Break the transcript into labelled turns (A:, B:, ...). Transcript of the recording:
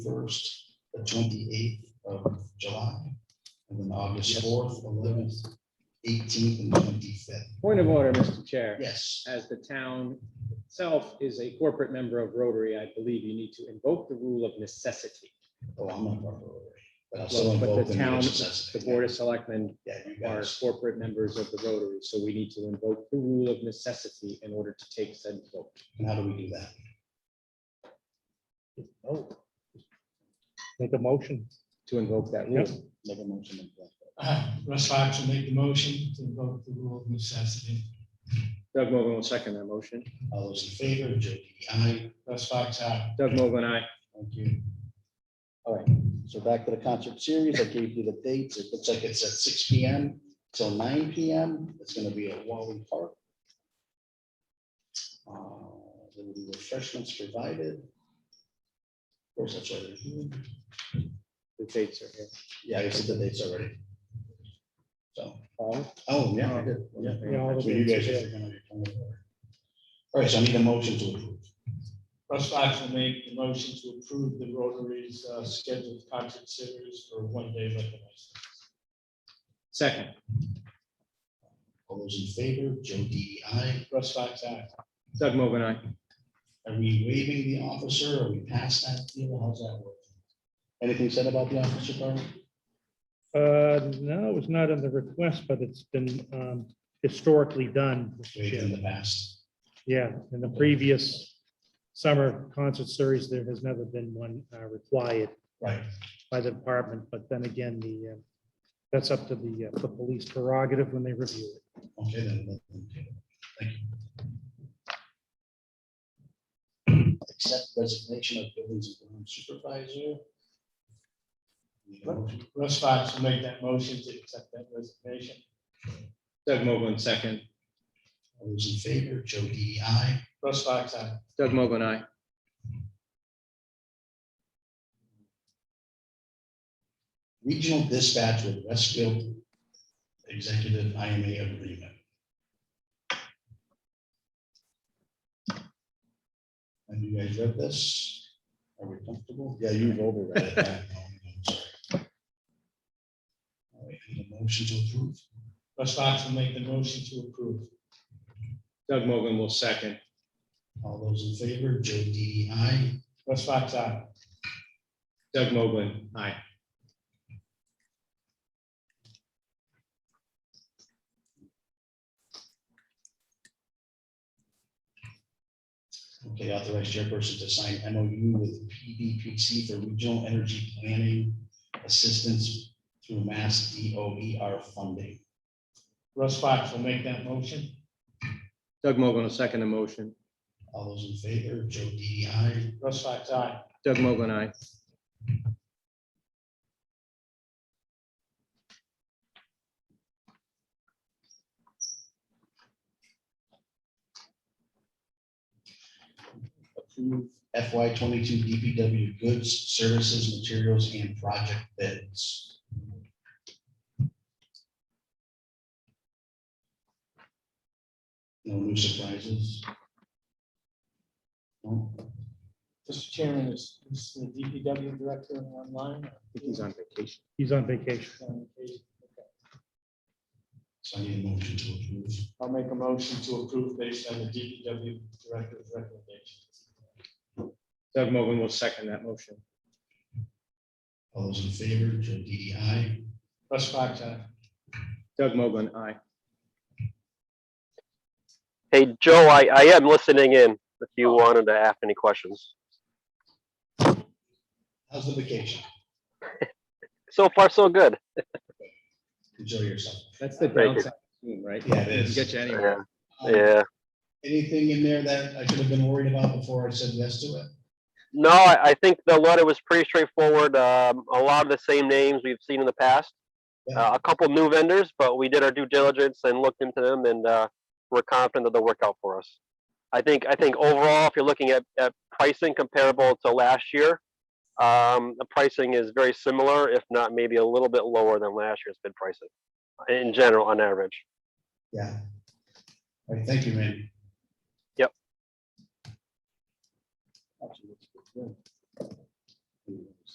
A: first, the twenty-eighth of July, and then August fourth, eleventh, eighteenth, and twenty-fifth.
B: Point of order, Mr. Chair.
A: Yes,
B: As the town itself is a corporate member of Rotary, I believe you need to invoke the rule of necessity.
A: oh, I'm not part of it, but I'll still
B: Well, But
A: involve
B: the
A: the
B: town,
A: necessity.
B: the Board of Selectmen
A: Yeah, you
B: are
A: guys,
B: corporate members of the Rotary, so we need to invoke the rule of necessity in order to take said vote.
A: and how do we do that?
C: Oh. Make a motion.
B: To invoke that rule.
A: Make a motion. and go.
D: Uh, Russ Fox will make the motion to invoke the rule of necessity.
B: Doug Mogul will second that motion.
A: All those in favor, Joe DDI. aye.
D: Russ Fox, aye.
B: Doug Mogul and I,
A: Thank you. All right, so back to the concert series. I gave you the dates. It looks like it's at six P M till nine P M. It's gonna be at Wally Park. Uh, There will be refreshments provided. Of course, that's already,
B: the dates are here.
A: yeah, I said the dates already. So,
B: Paul?
A: oh, yeah, I did, yeah.
C: Yeah, all the
A: So you guys
C: dates,
A: are gonna be coming over. All right, so I need a motion to approve.
D: Russ Fox will make the motion to approve the Rotary's uh, scheduled concert series for one day liquor license.
B: Second,
A: All those in favor, Joe E DDI. aye.
D: Russ Fox, aye.
B: Doug Mogul and I,
A: Are we waiving the officer? Are we past that deal? How's that work? Anything said about the officer, Carmen?
C: Uh, no, it's not in the request, but it's been um, historically done. Mr.
A: Waived in
C: Chair.
A: the past.
C: Yeah, in the previous summer concert series, there has never been one uh, required
A: Right.
C: by the department, but then again, the, uh, that's up to the, uh, the police prerogative when they review it.
A: Okay, then. let them do it. Thank you. Accept resignation of buildings and grounds supervisor. Need a motion?
D: Russ Fox will make that motion to accept that resignation.
B: Doug Mogul and second,
A: All those in favor, Joe E DDI.
D: Russ Fox, aye.
B: Doug Mogul and I,
A: Regional dispatch with Westfield Executive IMA Agreement. Have you guys read this? Are we comfortable? Yeah, you've overread it. Yeah, no, I'm sorry. All right, any motion to approve?
D: Russ Fox will make the motion to approve.
B: Doug Mogul will second,
A: All those in favor, Joe DDI.
D: Russ Fox, aye.
B: Doug Mogul and I.
A: Okay, authorized chairperson to sign MOU with PDPC for regional energy planning assistance through Mass DOER funding.
D: Russ Fox will make that motion.
B: Doug Mogul will second the motion.
A: All those in favor, Joe DDI.
D: Russ Fox, aye.
B: Doug Mogul and I.
A: Approve FY twenty-two DPW goods, services, materials, and project bids. No new surprises? No?
D: Mr. Chairman, is is the DPW director online?
B: I think he's on vacation.
C: He's on vacation.
A: So I need a motion to approve.
D: I'll make a motion to approve based on the DPW director's recommendations.
B: Doug Mogul will second that motion.
A: All those in favor, Joe DDI.
D: Russ Fox, aye.
B: Doug Mogul and I.
E: Hey, Joe, I, I am listening in if you wanted to ask any questions.
A: How's the vacation?
E: So far, so good.
A: Enjoy yourself.
B: That's the
E: Thank you.
B: downside, of Zoom, right?
A: Yeah, it
B: Doesn't
A: is.
B: Get you anywhere.
A: Um,
E: Uh, Yeah.
A: Anything in there that I should have been worried about before I said yes to it?
E: No, I, I think the letter was pretty straightforward. Um, a lot of the same names we've seen in the past. Uh, a couple new vendors, but we did our due diligence and looked into them and, uh, we're confident that they'll work out for us. I think, I think overall, if you're looking at, at pricing comparable to last year, um, the pricing is very similar, if not maybe a little bit lower than last year's bid pricing uh, in general, on average.
A: Yeah. All right, thank you, man.
E: Yep.
A: Actually, it's good.